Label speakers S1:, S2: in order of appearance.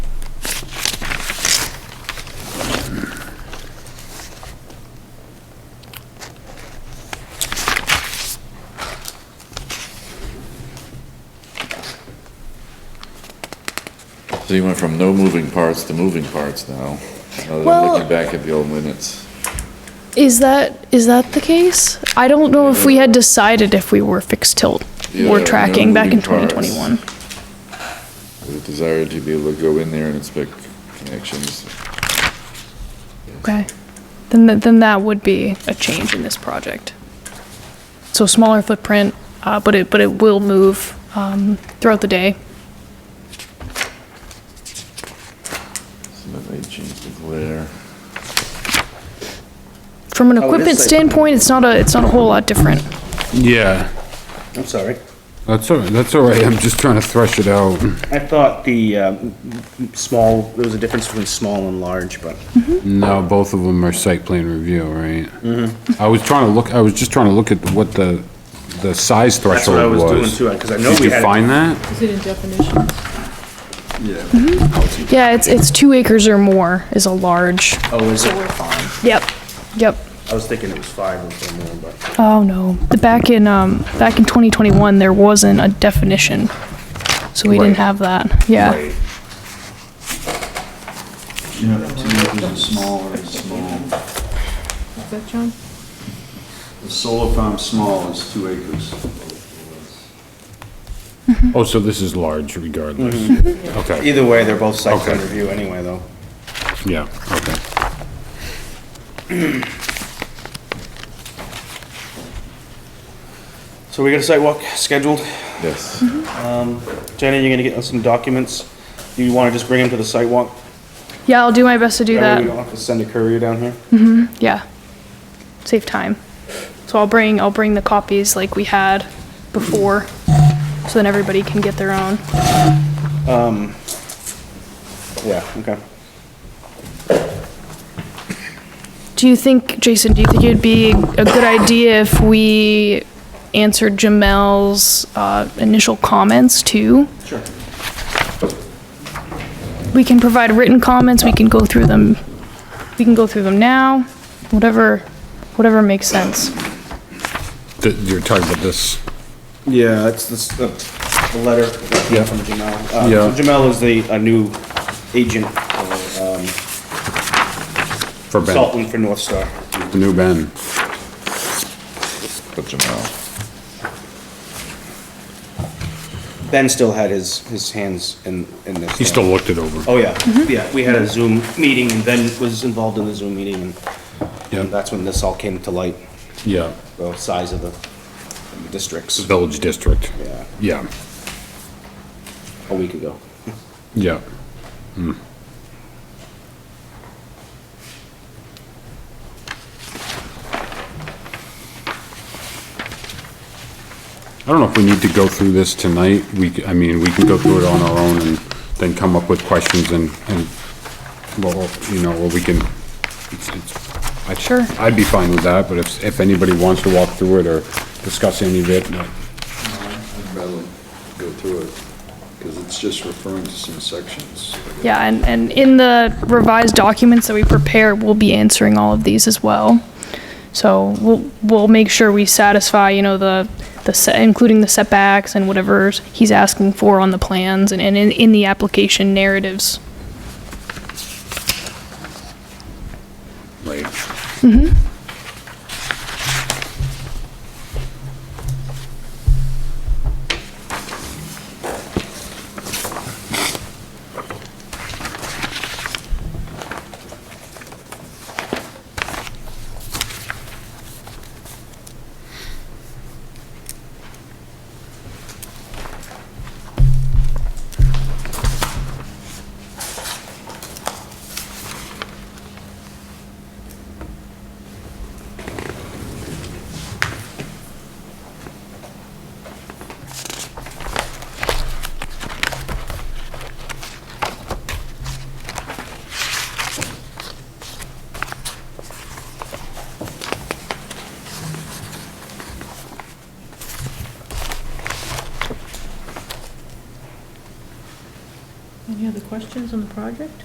S1: So you went from no moving parts to moving parts now. Now that I'm
S2: Well-
S1: looking back at the old minutes.
S2: Is that, is that the case? I don't know if we had decided if we were fixed tilt
S1: Yeah,
S2: or
S1: no
S2: tracking back in
S1: moving parts.
S2: 2021.
S1: The desire to be able to go in there and inspect connections.
S2: Okay. Then, th- then that would be a change in this project. So smaller footprint, uh, but it, but it will move, um, throughout the day.
S1: So that may change the glare.
S2: From an
S3: it is
S2: equipment
S3: safer.
S2: standpoint, it's not a, it's not a whole lot different.
S4: Yeah,
S3: I'm sorry.
S4: that's all, that's all right, I'm just trying to thresh it out.
S3: I thought the um, small, there was a difference between small and large, but
S4: No, both of them are site plan review, right?
S3: Mm-hmm.
S4: I was trying to look, I was just trying to look at what the, the size
S3: that's what I
S4: threshold
S3: was doing
S4: was.
S3: too, because I know
S4: Did
S3: we
S4: you
S3: had.
S4: find that?
S5: Is it in definitions?
S2: Yeah, it's, it's two acres or more is a large.
S3: Oh, is it? I
S2: Yep, yep.
S3: was thinking it was five or more, but
S2: Oh, no. The back in, um, back in 2021, there wasn't a definition. So we didn't
S4: Right.
S2: have that. Yeah.
S4: Right.
S6: Yeah, two acres is small or is small.
S5: Is that John?
S6: The solar farm small is two acres.
S4: Oh, so this is large regardless?
S3: Mm-hmm.
S4: Okay,
S3: either way, they're both site plan
S4: Okay.
S3: review anyway, though.
S4: yeah, okay.
S3: So we got a site walk scheduled.
S1: Yes.
S3: Jenny, you're gonna get us some documents. Do you want to just bring them to the site walk?
S2: Yeah, I'll do my best to do
S3: That way
S2: that.
S3: We
S2: Hmm.
S3: don't have to send a courier down here?
S2: Yeah. Save time. So I'll bring, I'll bring the copies like we had before. So then everybody can get their own.
S3: Yeah, okay.
S2: Do you think, Jason, do you think it'd be a good idea if we answered Jamel's uh, initial comments too? Sure. We can provide written comments, we can go through them, we can go through them now, whatever, whatever makes sense.
S4: Th- You're talking about this,
S3: Yeah, it's this, the, the letter that came
S4: Yeah.
S3: from Jamel. Uh,
S4: Yeah.
S3: so Jamel is the, a new agent, uh, um,
S4: for Ben,
S3: consultant for North Star.
S4: the new Ben.
S1: Put them out.
S3: Ben still had his, his hands in, in this.
S4: He still looked it over.
S3: Oh, yeah, yeah, we had a Zoom meeting and Ben was involved in the Zoom meeting and- and
S4: Yeah,
S3: that's when this all came to light,
S4: yeah,
S3: the size of the of the districts,
S4: Village District,
S3: yeah,
S4: yeah,
S3: a week ago.
S4: yeah. Hmm. I don't know if we need to go through this tonight. We, c- I mean, we can go through it on our own and then come up with questions and, and, well, you know, or we can, it's, it's. I-
S2: Sure.
S4: I'd be fine with that, but if, if anybody wants to walk through it or discuss any of it, no.
S6: I'd rather go through it, because it's just referring to some sections.
S2: Yeah, and, and in the revised documents that we prepare, we'll be answering all of these as well. So we'll, we'll make sure we satisfy, you know, the, the, se- including the setbacks and whatever he's asking for on the plans and, and in, in the application narratives.
S4: Right.
S5: Any other questions on the project?